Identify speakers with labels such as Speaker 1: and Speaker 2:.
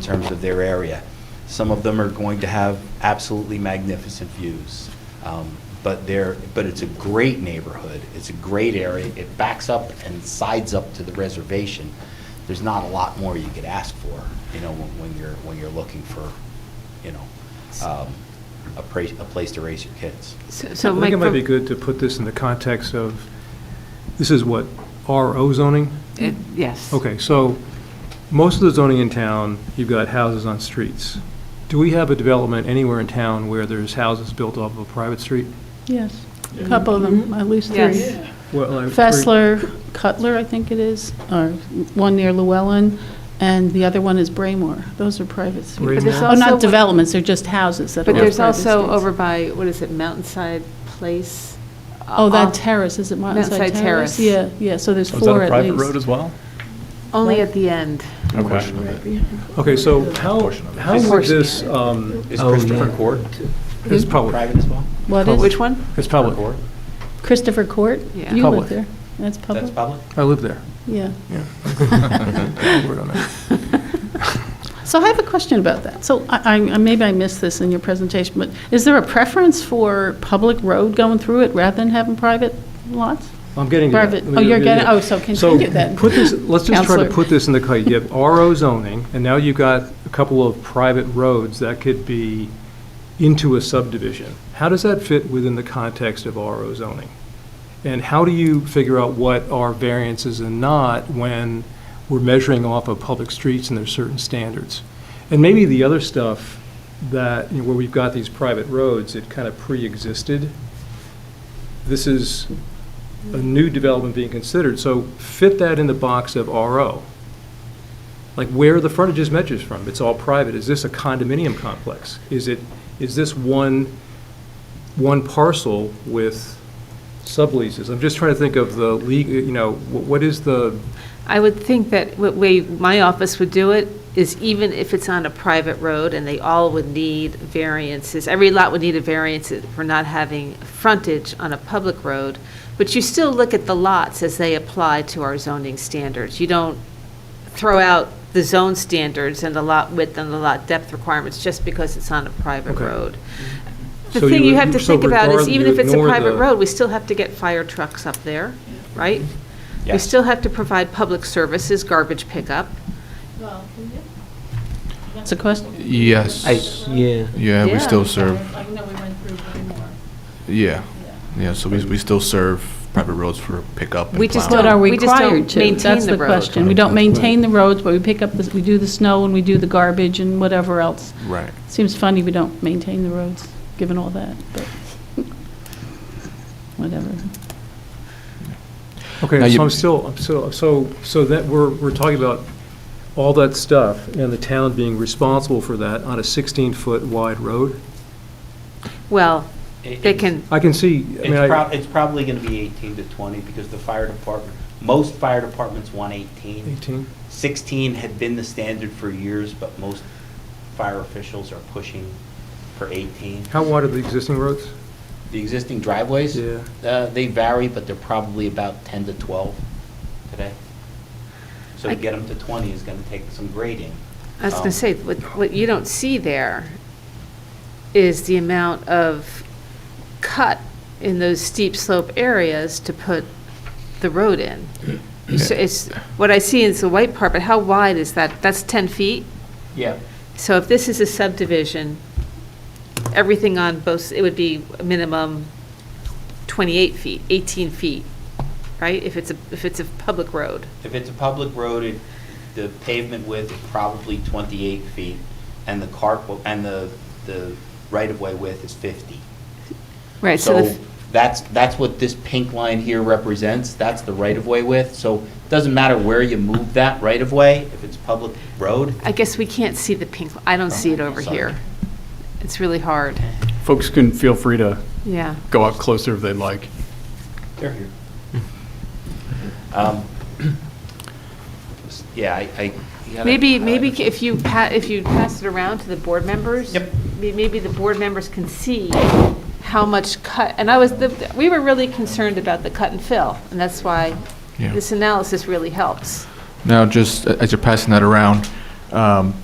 Speaker 1: terms of their area. Some of them are going to have absolutely magnificent views. Um, But they're, but it's a great neighborhood. It's a great area. It backs up and sides up to the reservation. There's not a lot more you could ask for, you know, when when you're, when you're looking for, you know, um, a place, a place to raise your kids.
Speaker 2: So-
Speaker 3: I
Speaker 2: So
Speaker 3: think
Speaker 2: Mike,
Speaker 3: it might
Speaker 2: for-
Speaker 3: be good to put this in the context of, this is what, RO zoning?
Speaker 2: it- yes.
Speaker 3: Okay, so most of the zoning in town, you've got houses on streets. Do we have a development anywhere in town where there's houses built off of a private street?
Speaker 4: Yes, a couple of them, at least
Speaker 2: Yes.
Speaker 4: three. Fessler, Cutler, I think it is, or one near Llewellyn, and the other one is Braymore. Those are private
Speaker 3: Braymore.
Speaker 4: streets.
Speaker 2: But there's
Speaker 4: Oh,
Speaker 2: also-
Speaker 4: not developments, they're just houses that are
Speaker 2: But
Speaker 4: on private
Speaker 2: there's
Speaker 4: streets.
Speaker 2: also over by, what is it, Mountainside Place? Uh,
Speaker 4: Oh,
Speaker 2: off-
Speaker 4: that terrace, is it Mountainside
Speaker 2: Mountainside
Speaker 4: Terrace?
Speaker 2: Terrace.
Speaker 4: Yeah, yeah, so there's
Speaker 5: Was Oh, that
Speaker 4: four
Speaker 5: a
Speaker 4: at
Speaker 5: private road
Speaker 4: least.
Speaker 5: as well?
Speaker 2: Only at the end.
Speaker 5: Okay.
Speaker 3: Okay, so how,
Speaker 5: Portion of it.
Speaker 3: how would this, um,
Speaker 1: Is Christopher Court
Speaker 3: it's public,
Speaker 1: private as well?
Speaker 4: What is,
Speaker 2: Which one?
Speaker 3: it's public.
Speaker 1: Court?
Speaker 4: Christopher Court?
Speaker 2: Yeah.
Speaker 4: You
Speaker 3: Public.
Speaker 4: live there, that's
Speaker 1: That's
Speaker 4: public,
Speaker 1: public?
Speaker 3: I live there.
Speaker 4: yeah.
Speaker 3: Word on it.
Speaker 4: So I have a question about that. So I, I- maybe I missed this in your presentation, but is there a preference for public road going through it rather than having private lots?
Speaker 3: I'm getting to that.
Speaker 4: Private-
Speaker 3: Let me-
Speaker 4: oh,
Speaker 3: let
Speaker 4: you're
Speaker 3: me-
Speaker 4: getting- oh, so continue then.
Speaker 3: put this, let's just try to
Speaker 4: Counselor.
Speaker 3: put this in the, cut. you have RO zoning, and now you've got a couple of private roads that could be into a subdivision. How does that fit within the context of RO zoning? And how do you figure out what are variances and not when we're measuring off of public streets and there's certain standards? And maybe the other stuff that, you know, where we've got these private roads, it kind of pre-existed. This is a new development being considered, so fit that in the box of RO. Like where are the frontages measures from? It's all private. Is this a condominium complex? Is it, is this one, one parcel with subleases? I'm just trying to think of the league, you know, wh- what is the,
Speaker 2: I would think that what way my office would do it is even if it's on a private road and they all would need variances, every lot would need a variance for not having frontage on a public road, but you still look at the lots as they apply to our zoning standards. You don't throw out the zone standards and the lot width and the lot depth requirements just because it's on a private
Speaker 3: Okay.
Speaker 2: road. The
Speaker 3: So you
Speaker 2: thing you
Speaker 3: would-
Speaker 2: have to
Speaker 3: so
Speaker 2: think about is
Speaker 3: regard-
Speaker 2: even
Speaker 3: you
Speaker 2: if it's a
Speaker 3: ignore
Speaker 2: private
Speaker 3: the-
Speaker 2: road, we still have to get fire trucks up there, right? We
Speaker 1: Yes.
Speaker 2: still have to provide public services, garbage pickup.
Speaker 4: That's a question.
Speaker 6: Yes.
Speaker 7: Yeah.
Speaker 6: Yeah, we
Speaker 2: Yeah.
Speaker 6: still serve,
Speaker 4: I know we went through Braymore.
Speaker 6: yeah. Yeah, so we, we still serve private roads for pickup and
Speaker 2: We just
Speaker 4: But
Speaker 6: plowing.
Speaker 4: are
Speaker 2: don't-
Speaker 4: we
Speaker 2: We just don't
Speaker 4: required to?
Speaker 2: maintain
Speaker 4: That's
Speaker 2: the
Speaker 4: the
Speaker 2: road.
Speaker 4: question. We don't maintain the roads, but we pick up, the we do the snow and we do the garbage and whatever else.
Speaker 6: Right.
Speaker 4: Seems funny we don't maintain the roads, given all that, but whatever.
Speaker 6: Now
Speaker 3: okay,
Speaker 6: you-
Speaker 3: so I'm still, I'm still, so, so that, we're, we're talking about all that stuff and the town being responsible for that on a 16-foot wide road?
Speaker 2: Well,
Speaker 1: It-
Speaker 2: they
Speaker 1: it's-
Speaker 2: can,
Speaker 3: I can see, I mean,
Speaker 1: It's prob,
Speaker 3: I,
Speaker 1: it's probably gonna be eighteen to twenty, because the fire department, most fire departments want eighteen.
Speaker 3: 18?
Speaker 1: Sixteen had been the standard for years, but most fire officials are pushing for eighteen.
Speaker 3: How wide are the existing roads?
Speaker 1: The existing driveways?
Speaker 3: Yeah.
Speaker 1: Uh, they vary, but they're probably about ten to twelve today. So to
Speaker 2: I-
Speaker 1: get them to twenty is gonna take some grading.
Speaker 2: I was going
Speaker 3: Oh.
Speaker 1: Um,
Speaker 2: to say, what, what you don't see there is the amount of cut in those steep slope areas to put the road in. So it's, what I see is the white part, but how wide is that? That's 10 feet?
Speaker 1: Yeah.
Speaker 2: So if this is a subdivision, everything on both, it would be a minimum 28 feet, 18 feet, right? If it's a, if it's a public road.
Speaker 1: If it's a public road, it, the pavement width is probably twenty-eight feet, and the cart, and the, the right-of-way width is fifty.
Speaker 2: Right,
Speaker 1: So that's, that's what this pink line here represents, that's the right-of-way width, so it doesn't matter where you move that right-of-way, if it's public road,
Speaker 2: I guess we can't see the pink, I don't see it over here. It's really hard,
Speaker 8: Folks can feel free to
Speaker 2: yeah.
Speaker 8: go up closer if they'd like.
Speaker 1: they're here. Um, Yeah, I, I. you gotta-
Speaker 2: Maybe, maybe if you pa, if you pass it around to the board members.
Speaker 1: Yep.
Speaker 2: may- Maybe the board members can see how much cut, and I was, the- we were really concerned about the cut and fill, and that's why
Speaker 6: Yeah.
Speaker 2: this analysis really helps.
Speaker 6: uh, Now, just a- as you're passing that around, um,